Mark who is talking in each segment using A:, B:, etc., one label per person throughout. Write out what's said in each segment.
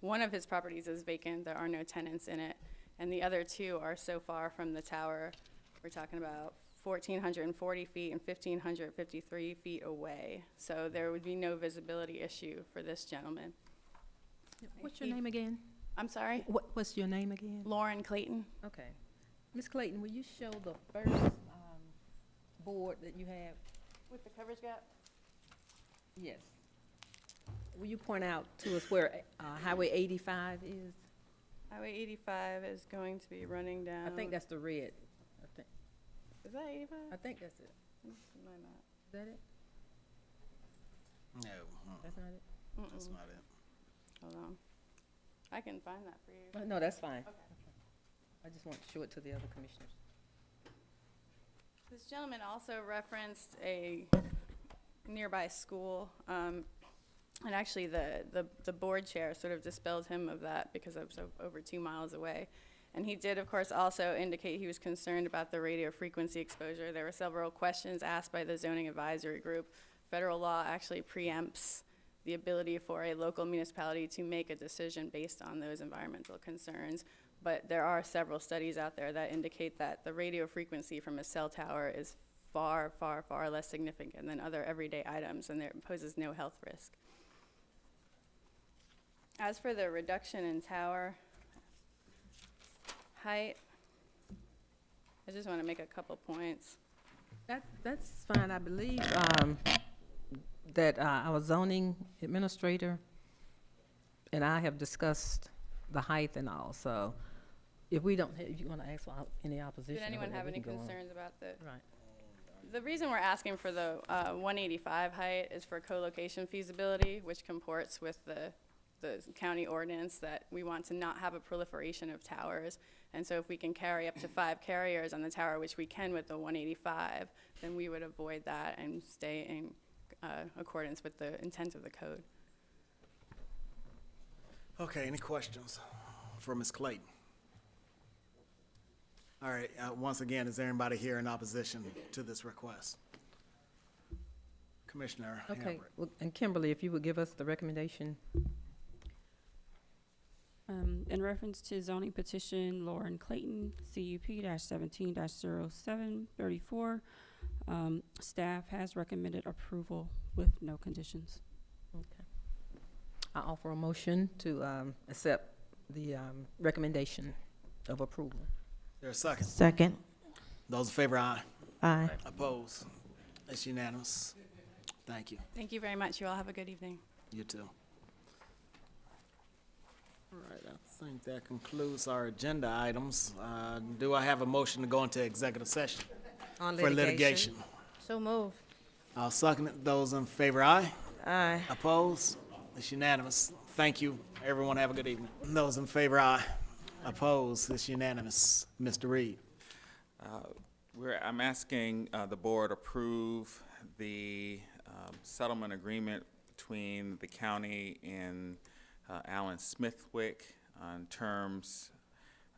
A: One of his properties is vacant, there are no tenants in it, and the other two are so far from the tower. We're talking about 1,440 feet and 1,553 feet away. So there would be no visibility issue for this gentleman.
B: What's your name again?
A: I'm sorry?
B: What, what's your name again?
A: Lauren Clayton?
B: Okay. Ms. Clayton, will you show the first, um, board that you have?
A: With the coverage gap?
B: Yes. Will you point out to us where, uh, Highway eighty-five is?
A: Highway 85 is going to be running down.
B: I think that's the red. I think,
A: Is that 85?
B: I think that's it.
A: This is my map.
B: Is that it?
C: No, hmm,
B: That's not it?
C: that's
A: Mm-mm,
C: not it.
A: Hold on. I can find that for you.
B: Uh, No, that's fine.
A: Okay.
B: I just want to show it to the other commissioners.
A: This gentleman also referenced a nearby school, um, and actually the, the, the board chair sort of dispelled him of that because I'm so over two miles away. And he did, of course, also indicate he was concerned about the radio frequency exposure. There were several questions asked by the zoning advisory group. Federal law actually preempts the ability for a local municipality to make a decision based on those environmental concerns. But there are several studies out there that indicate that the radio frequency from a cell tower is far, far, far less significant than other everyday items, and there poses no health risk. As for the reduction in tower height, I just want to make a couple points.
B: That, that's fine, I believe, um, that uh, our zoning administrator and I have discussed the height and all, so if we don't, ha- if you wanna ask for op- any opposition.
A: Did
B: or
A: anyone have
B: whatever, we
A: any
B: can go on.
A: concerns about the
B: Right,
A: The reason we're asking for the uh, 185 height is for co-location feasibility, which comports with the, the county ordinance that we want to not have a proliferation of towers. And so if we can carry up to five carriers on the tower, which we can with the 185, then we would avoid that and stay in uh, accordance with the intent of the code.
C: Okay, any questions for Ms. Clayton? All right, uh, once again, is there anybody here in opposition to this request? Commissioner
B: okay,
C: Hambrick.
B: Well, and Kimberly, if you would give us the recommendation,
D: Um, in reference to zoning petition Lauren Clayton, CUP seventeen 7 34 um, staff has recommended approval with no conditions.
B: I offer a motion to, um, accept the, um, recommendation of approval.
C: There a second?
E: Second.
C: Those in favor, aye.
E: Aye.
C: Opposed? It's unanimous. Thank you.
A: Thank you very much. You all have a good evening.
C: You too. All right, I think that concludes our agenda items. Uh, Do I have a motion to go into executive session
E: On
C: for litigation?
E: So move.
C: I'll second it. Those in favor, aye.
E: Aye.
C: Opposed? It's unanimous. Thank you. Everyone have a good evening. Those in favor, aye. Opposed? It's unanimous. Mr. Reed.
F: We're, I'm asking uh, the board approve the um, settlement agreement between the county and uh, Alan Smithwick on terms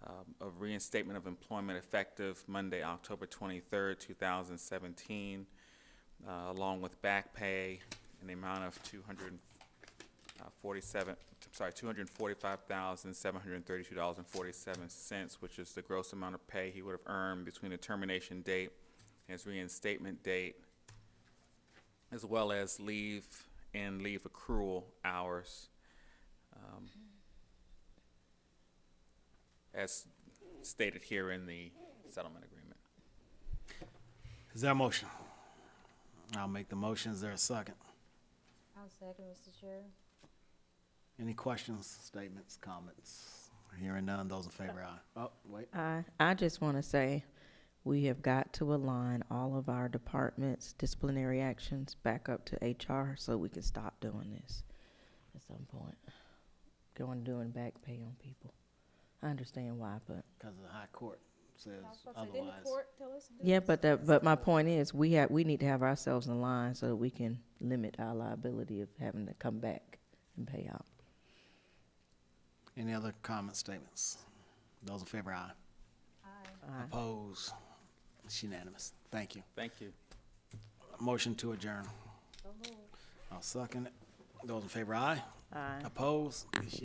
F: um, of reinstatement of employment effective Monday, October 23rd, 2017, uh, along with back pay in the amount of 247, Uh, sorry, $245,732.47, which is the gross amount of pay he would have earned between the termination date and his reinstatement date, as well as leave and leave accrual hours. um, As stated here in the settlement agreement.
C: Is there a motion? I'll make the motion. Is there a second?
E: I'll second, Mr. Chair.
C: Any questions, statements, comments? Hearing none. Those in favor, aye. Oh, wait.
E: Aye. I just want to say, we have got to align all of our departments' disciplinary actions back up to HR so we can stop doing this at some point. Going, doing back pay on people. I understand why, but,
C: Because the high court says
G: Didn't the
C: otherwise.
G: court tell us to do
E: yeah,
G: this?
E: but that, but my point is, we have, we need to have ourselves in line so that we can limit our liability of having to come back and pay out.
C: Any other comments, statements? Those in favor, aye.
E: Aye.
C: Opposed? It's unanimous. Thank you.
F: Thank you.
C: Motion to adjourn. I'll second it. Those in favor, aye.
E: Aye.
C: Opposed? It's